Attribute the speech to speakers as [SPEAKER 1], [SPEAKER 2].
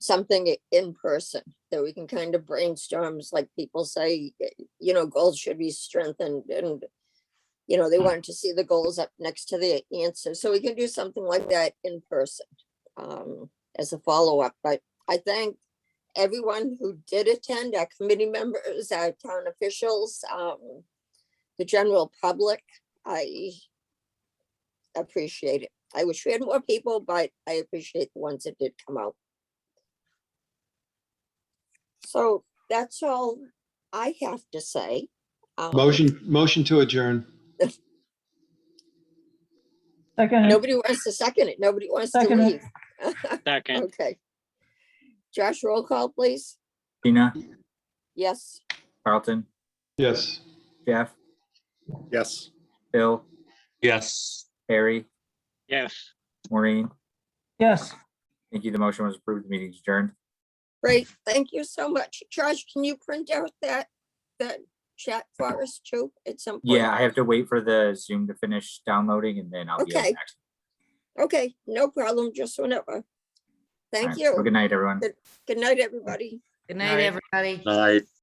[SPEAKER 1] something in person that we can kind of brainstorms, like people say, you know, goals should be strengthened and, you know, they wanted to see the goals up next to the answer. So we can do something like that in person um, as a follow-up. But I thank everyone who did attend, our committee members, our town officials, um, the general public. I appreciate it. I wish we had more people, but I appreciate the ones that did come out. So that's all I have to say. Um,
[SPEAKER 2] Motion, motion to adjourn.
[SPEAKER 3] Second,
[SPEAKER 1] Nobody wants to second it. Nobody wants to
[SPEAKER 3] Second it.
[SPEAKER 1] leave.
[SPEAKER 4] Second,
[SPEAKER 1] Okay. Josh, roll call, please.
[SPEAKER 5] Tina,
[SPEAKER 1] Yes,
[SPEAKER 5] Carlton,
[SPEAKER 2] Yes.
[SPEAKER 5] Jeff,
[SPEAKER 6] Yes.
[SPEAKER 5] Bill,
[SPEAKER 7] Yes.
[SPEAKER 5] Harry,
[SPEAKER 4] yes.
[SPEAKER 5] Maureen.
[SPEAKER 3] yes.
[SPEAKER 5] Thank you. The motion was approved. The meeting is adjourned.
[SPEAKER 1] great. Thank you so much. Josh, can you print out that, that chat for us too at some point?
[SPEAKER 5] Yeah, I have to wait for the Zoom to finish downloading and then I'll be. up
[SPEAKER 1] Okay.
[SPEAKER 5] next.
[SPEAKER 1] Okay, no problem, just whenever.
[SPEAKER 5] All
[SPEAKER 1] Thank
[SPEAKER 5] right. Have a
[SPEAKER 1] you.
[SPEAKER 5] Good night, everyone.
[SPEAKER 1] Good night, everybody.
[SPEAKER 8] Good
[SPEAKER 4] Night.
[SPEAKER 8] night, everybody.
[SPEAKER 6] Night.